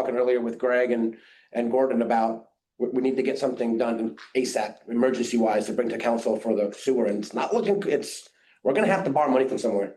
talking earlier with Greg and, and Gordon about, we, we need to get something done ASAP, emergency wise, to bring to council for the sewer, and it's not looking, it's, we're gonna have to borrow money from somewhere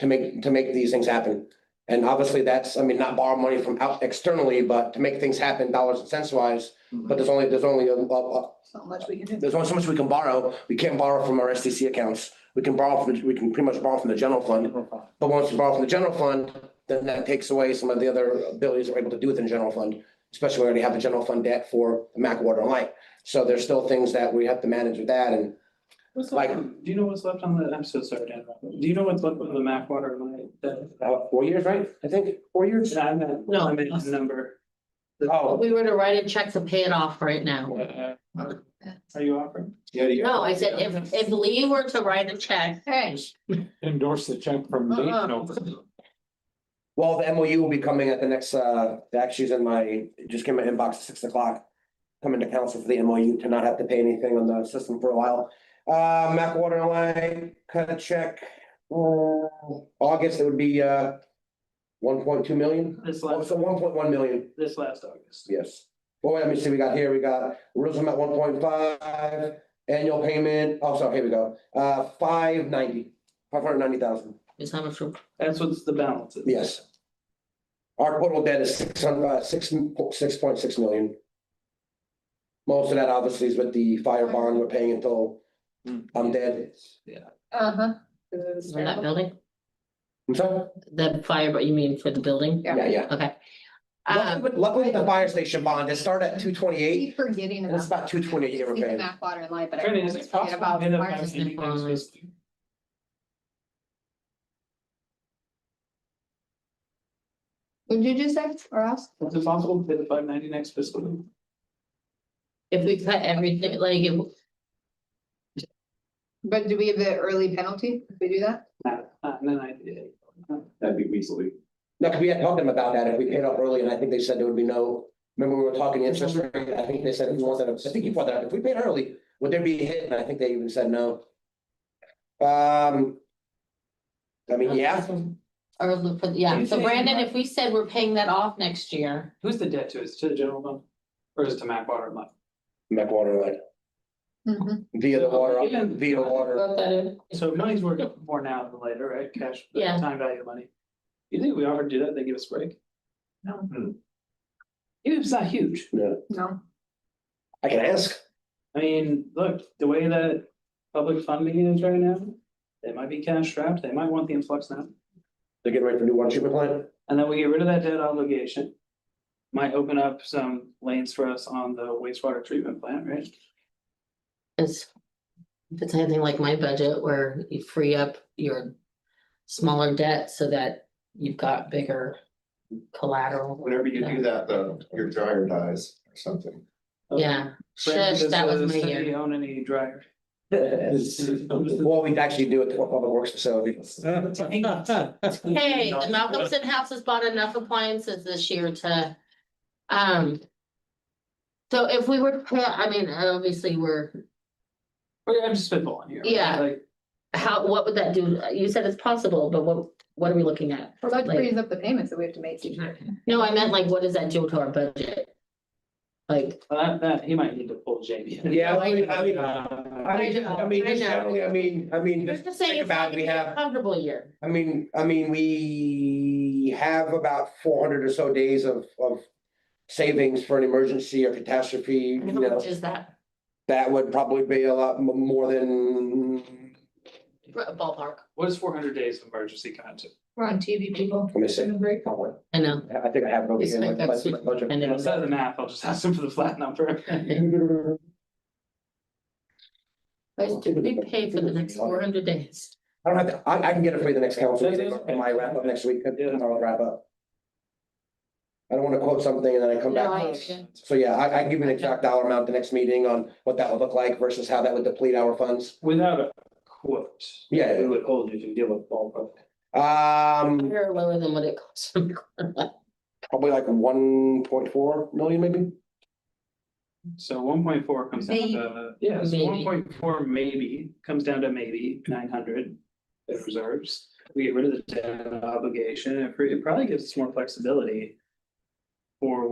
to make, to make these things happen. And obviously, that's, I mean, not borrow money from out externally, but to make things happen dollars and cents wise, but there's only, there's only a, a, a- Not much we can do. there's only so much we can borrow. We can't borrow from our SDC accounts. We can borrow from, we can pretty much borrow from the general fund. But once you borrow from the general fund, then that takes away some of the other abilities that we're able to do within the general fund, especially when we already have a general fund debt for the Mac Water and Light. So there's still things that we have to manage with that and What's Like- left, on- do you know what's left on the, I'm so sorry, Dan, do you know what's left on the Mac water line? that- uh, four years, right? I think, four years? I meant, No. I meant the number, Oh, We were to write a check to pay it off right now. uh, are you offering? No, I said if, if Lee were to write a check, Hey, endorse the check from Uh-huh. Lee. Uh-uh. No. well, the MOU will be coming at the next, uh, it actually is in my, it just came in my inbox at six o'clock. Coming to council for the MOU to not have to pay anything on the system for a while. Uh, Mac Water and Light, cut a check. uh, August, it would be, uh, one point two million. This Oh, last, so one point one million, this last August. yes. Well, let me see, we got here, we got Jerusalem at one point five, annual payment, oh, sorry, here we go, uh, five ninety, five hundred ninety thousand, is how much, we're- That's what's the balance. is. yes. Our total debt is six hundred, uh, six, six point six million. Most of that obviously is with the fire bond we're paying until I'm dead. Yeah, uh-huh. for that building, I'm sorry? the fire, but you mean for the building? Yeah. Yeah, Um, yeah. Okay. Luckily, Uh, with- luckily with the fire station bond, it started at two twenty-eight, Keep forgetting and about. it's about two twenty a year we're Keep the paying. Mac water and light, but I Trying to, always is it forget possible about. to get a Mars. meeting next week? Would you just say, or else? Is it possible to hit five ninety next fiscal? year? if we cut everything, like, it- But do we have the early penalty if we do that? Nah, nah, no, I did. That'd be weaselly. No, 'cause we had talked to them about that, if we paid up early, and I think they said there would be no, remember we were talking interest rate, I think they said, if you want that, I think you brought that, up. if we paid early, would there be a hit, and I think they even said no. Um. I mean, yeah, Or, look for- yeah, so Brandon, if we said we're paying that off next year, Who's the debt to, is it to the general fund? Or is it to Mac water and Light? Mac Water Line, Mhm. via the water, via water, put that in. So money's worth more now than later, right? Cash, the Yeah. time value of money. You think we offered to do that, they give us a break? No. Even if it's not huge. No, I can ask, I mean, look, the way that public funding is right now, they might be cash strapped, they might want the influx now. they're getting ready for new water treatment plant, And then we get rid of that debt obligation. Might open up some lanes for us on the wastewater treatment plant, right? It's, if it's anything like my budget where you free up your smaller debt so that you've got bigger collateral. Whenever you do that, though, your dryer dies or something. Yeah, Brandon, shush, that does was my the city year. uh, Own any dryer? well, we'd actually do it to a public works facility. Hey, the Malcolmson House has bought enough appliances this year to, um. So if we were to pay, I mean, obviously, we're, Well, I'm just spitballing here. right? Yeah. Like, how, what would that do? You said it's possible, but what, what are we looking at? that Like- frees up the payments that we have to make. No, I meant like, what does that do to our budget? Like, well, that, that, he might need to pull Jamie. in. Yeah, I mean, I mean, I I mean, know, I mean, I just know. generally, I mean, I mean, you're just just think saying it's not about, gonna it, be we have. a comfortable year. I mean, I mean, we have about four hundred or so days of, of savings for an emergency or catastrophe, And you How know. much is that That would probably be a lot m- more than, ballpark? What is four hundred days of emergency content? We're on TV, people. let me see. Very I know. I think I have it over It's here. like my- that's- my budget. and Yeah, it's- instead of the math, I'll just ask them for the flat number. Guys, did we pay for the next four hundred days? I don't have, to- I, I can get it for you the next council That's meeting, okay. in my wrap up next week, Yeah. tomorrow wrap up. I don't wanna quote something and then I come No, back. I, So yeah, I, I can give you an exact dollar amount the next meeting on what that would look like versus how that would deplete our funds. Without a quote. Yeah. We would hold you to deal with ballpark. Um, higher or lower than what it costs. probably like one point four million maybe. So one point four comes down to, yeah, so Maybe. one point four maybe comes down to maybe nine hundred. in reserves, we get rid of the debt obligation, it pretty- it probably gives us more flexibility. for